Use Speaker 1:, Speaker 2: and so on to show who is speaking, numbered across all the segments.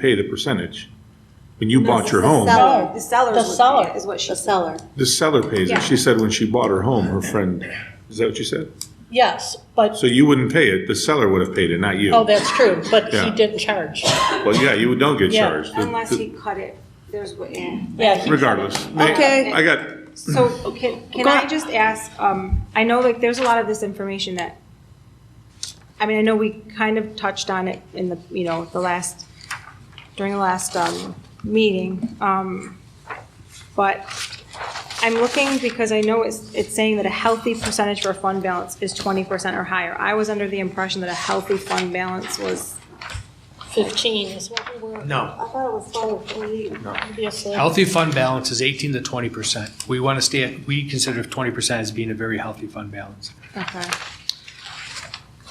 Speaker 1: paid a percentage. When you bought your
Speaker 2: the
Speaker 1: home,
Speaker 2: seller.
Speaker 3: No,
Speaker 2: Oh. The seller's
Speaker 3: The
Speaker 2: would pay it,
Speaker 3: seller,
Speaker 2: is what she
Speaker 3: the
Speaker 2: said.
Speaker 3: seller.
Speaker 1: the seller pays
Speaker 2: Yeah.
Speaker 1: it. She said when she bought her home, her friend, is that what you said?
Speaker 3: Yes, but,
Speaker 1: So you wouldn't pay it, the seller would have paid it, not you.
Speaker 3: oh, that's true, but
Speaker 1: Yeah.
Speaker 3: he didn't charge.
Speaker 1: Well, yeah, you don't get
Speaker 3: Yeah.
Speaker 1: charged. The-
Speaker 2: Unless Oh.
Speaker 1: the-
Speaker 2: he cut it, there's what, yeah.
Speaker 3: Yeah, he-
Speaker 1: Regardless. May-
Speaker 2: Okay.
Speaker 1: I got,
Speaker 2: So can, can
Speaker 3: Go
Speaker 2: I
Speaker 3: on.
Speaker 2: just ask, um, I know like there's a lot of this information that, I mean, I know we kind of touched on it in the, you know, the last, during the last, um, meeting. Um, but I'm looking because I know it's, it's saying that a healthy percentage for a fund balance is twenty percent or higher. I was under the impression that a healthy fund balance was,
Speaker 3: 15 is what we were,
Speaker 4: No.
Speaker 2: I thought it was twenty.
Speaker 3: obviously.
Speaker 4: Healthy fund balance is 18 to 20%. We want to stay, at we consider 20% as being a very healthy fund balance.
Speaker 2: Okay.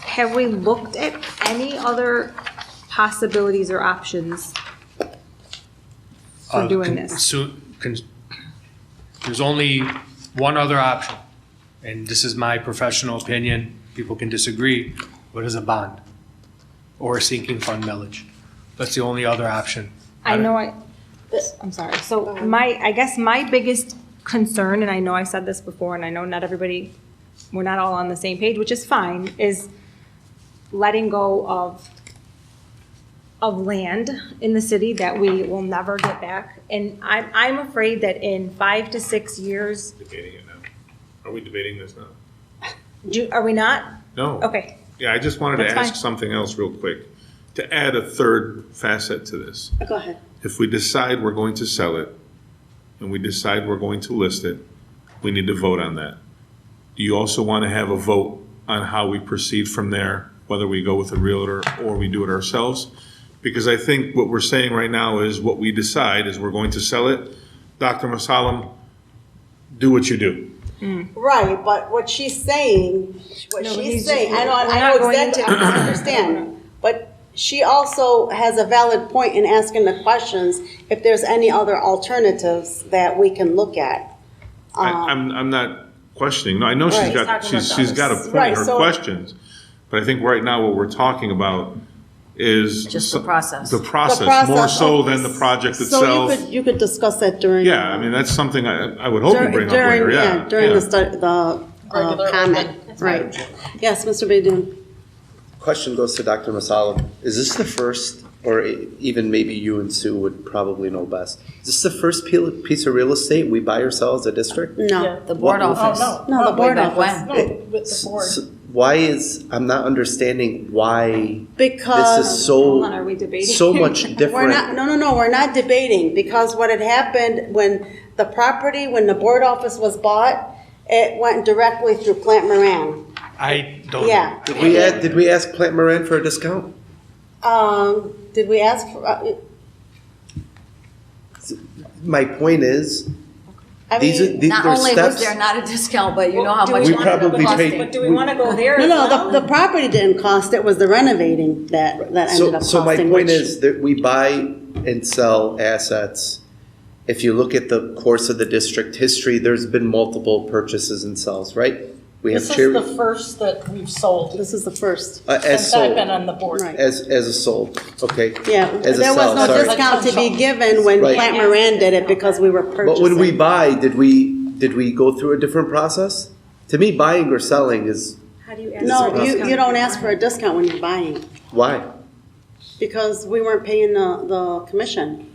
Speaker 2: Have we looked at any other possibilities or options for
Speaker 4: Uh,
Speaker 2: doing
Speaker 4: con-
Speaker 2: this?
Speaker 4: so- con- There's only one other option, and this is my professional opinion, people can disagree, but is a bond or a sinking fund millage. That's the only other option.
Speaker 2: I know I, I'm sorry, so my, I guess my biggest concern, and I know I've said this before, and I know not everybody, we're not all on the same page, which is fine, is letting go of, of land in the city that we will never get back. And I'm, I'm afraid that in five to six years,
Speaker 1: debating it now. Are we debating this now?
Speaker 2: do, are we not?
Speaker 1: No.
Speaker 2: Okay,
Speaker 1: Yeah, I just wanted to
Speaker 2: That's
Speaker 1: ask
Speaker 2: fine.
Speaker 1: something else real quick, to add a third facet to this.
Speaker 3: Go ahead.
Speaker 1: If we decide we're going to sell it, and we decide we're going to list it, we need to vote on that. Do you also want to have a vote on how we proceed from there, whether we go with a realtor or we do it ourselves? Because I think what we're saying right now is what we decide is we're going to sell it. Dr. Masalam, do what you do.
Speaker 5: Right, but what she's saying, what
Speaker 2: No, but
Speaker 5: she's
Speaker 2: he's-
Speaker 5: saying, I know, I
Speaker 2: we're not
Speaker 5: know
Speaker 2: going
Speaker 5: exactly,
Speaker 2: into-
Speaker 5: I understand. But she also has a valid point in asking the questions, if there's any other alternatives that we can look at.
Speaker 1: I, I'm, I'm not questioning. No, I know she's
Speaker 5: Um, Right.
Speaker 1: got,
Speaker 2: He's talking
Speaker 1: she's,
Speaker 2: about
Speaker 1: she's
Speaker 2: those.
Speaker 1: got a point, in
Speaker 5: Right,
Speaker 1: her
Speaker 5: so-
Speaker 1: questions. But I think right now what we're talking about is.
Speaker 6: Just the
Speaker 1: so-
Speaker 6: process.
Speaker 1: The
Speaker 5: The
Speaker 1: process, more
Speaker 5: process
Speaker 1: so
Speaker 5: of-
Speaker 1: than the project
Speaker 5: So you
Speaker 1: itself.
Speaker 5: could, you could discuss that during.
Speaker 1: Yeah, I mean, that's something I, I would hope you
Speaker 5: during-
Speaker 1: bring up
Speaker 5: during-
Speaker 1: later, yeah.
Speaker 5: During
Speaker 1: yeah.
Speaker 5: the stu, the uh,
Speaker 3: Regular
Speaker 5: comment, right. Yes, Mr. Baydun.
Speaker 7: Question goes to Dr. Masalam. Is this the first, or e- even maybe you and Sue would probably know best, is this the first pil- piece of real estate we buy or sell as a district?
Speaker 5: No,
Speaker 6: The board
Speaker 3: Oh,
Speaker 7: What-
Speaker 6: office.
Speaker 5: No, the board
Speaker 6: of
Speaker 5: office.
Speaker 6: when?
Speaker 7: It-
Speaker 3: With the board.
Speaker 7: s- Why is, I'm not understanding why this is
Speaker 5: because.
Speaker 7: so,
Speaker 2: Hold on, are we debating?
Speaker 7: so much
Speaker 5: We're not,
Speaker 7: different.
Speaker 5: no, no, no, we're not debating, because what had happened when the property, when the board office was bought, it went directly through Plant Moran.
Speaker 4: I
Speaker 7: Oh.
Speaker 4: don't.
Speaker 5: Yeah.
Speaker 7: Did we, a- did we ask Plant Moran for a discount?
Speaker 5: Um, did we ask for, uh,
Speaker 7: My point is,
Speaker 5: I
Speaker 7: these are,
Speaker 5: mean,
Speaker 7: these
Speaker 6: Not
Speaker 7: are
Speaker 6: only was
Speaker 7: steps.
Speaker 6: there not a discount, but you know how
Speaker 2: Do we
Speaker 6: much.
Speaker 7: We
Speaker 2: wanna go-
Speaker 6: money
Speaker 7: probably
Speaker 6: it cost
Speaker 7: paid-
Speaker 2: But do we want to go there
Speaker 5: no,
Speaker 2: as
Speaker 5: no,
Speaker 2: well?
Speaker 5: the, the property didn't cost, it was the renovating that, that ended
Speaker 7: So,
Speaker 5: up
Speaker 7: so my
Speaker 5: costing,
Speaker 7: point
Speaker 5: which.
Speaker 7: is that we buy and sell assets. If you look at the course of the district history, there's been multiple purchases and sells, right? We have
Speaker 3: This is the
Speaker 7: Cherry,
Speaker 3: first that we've sold
Speaker 5: This is the first,
Speaker 7: uh, as
Speaker 3: since I've been
Speaker 7: sold,
Speaker 3: on the board.
Speaker 5: Right.
Speaker 7: as, as a sold, okay?
Speaker 5: yeah,
Speaker 7: As a
Speaker 5: there was
Speaker 7: sell,
Speaker 5: no
Speaker 7: sorry.
Speaker 5: discount to be given when
Speaker 7: Right.
Speaker 5: Plant Moran did it, because we were purchasing.
Speaker 7: But when we buy, did we, did we go through a different process? To me, buying or selling is,
Speaker 2: How do you ask for
Speaker 5: No,
Speaker 2: a
Speaker 5: you,
Speaker 2: discount?
Speaker 5: you don't ask for a discount when you're buying.
Speaker 7: why?
Speaker 5: Because we weren't paying the, the commission.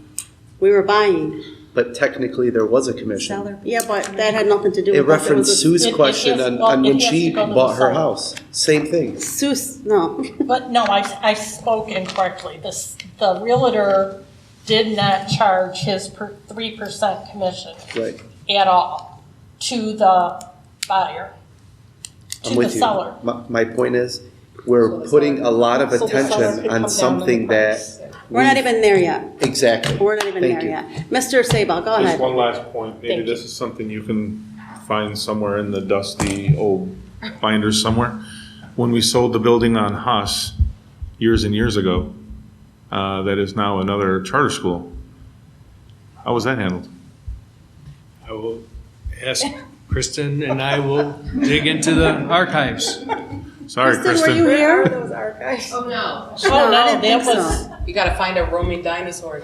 Speaker 5: We were buying.
Speaker 7: But technically, there was a commission.
Speaker 5: Yeah, but that had nothing to do with.
Speaker 7: It
Speaker 5: us. was
Speaker 7: referenced
Speaker 5: a-
Speaker 7: Sue's
Speaker 3: It- it
Speaker 7: question
Speaker 3: has-
Speaker 7: on,
Speaker 3: well,
Speaker 7: on when
Speaker 3: it has
Speaker 7: she
Speaker 3: to go to
Speaker 7: bought
Speaker 3: the
Speaker 7: her
Speaker 3: seller.
Speaker 7: house, same thing.
Speaker 5: Sue's, no.
Speaker 3: But no, I, I spoke incorrectly. This, the realtor did not charge his per, three percent commission
Speaker 7: Right.
Speaker 3: at all to the buyer,
Speaker 7: I'm
Speaker 3: to the
Speaker 7: with you.
Speaker 3: seller.
Speaker 7: My, my point is, we're putting a lot of
Speaker 3: So the seller could
Speaker 7: attention
Speaker 3: come down on
Speaker 7: on
Speaker 3: the
Speaker 7: something that.
Speaker 3: price.
Speaker 5: We're not even there yet.
Speaker 7: Exactly.
Speaker 5: We're not even
Speaker 7: Mm. Thank
Speaker 5: there
Speaker 7: you.
Speaker 5: yet. Mr. Sabal, go
Speaker 1: Just
Speaker 5: ahead.
Speaker 1: one last point, maybe
Speaker 3: Thank you.
Speaker 1: this is something you can find somewhere in the dusty old binders somewhere. When we sold the building on Haas years and years ago, uh, that is now another charter school, how was that handled?
Speaker 4: I will ask Kristen and I will dig into the archives.
Speaker 1: Sorry,
Speaker 5: Kristen, were
Speaker 1: Kristen.
Speaker 5: you here?
Speaker 2: Those archives.
Speaker 8: Oh, no.
Speaker 3: Oh,
Speaker 5: No, I
Speaker 3: no, that
Speaker 5: didn't think
Speaker 3: was,
Speaker 9: You gotta find a roaming dinosaur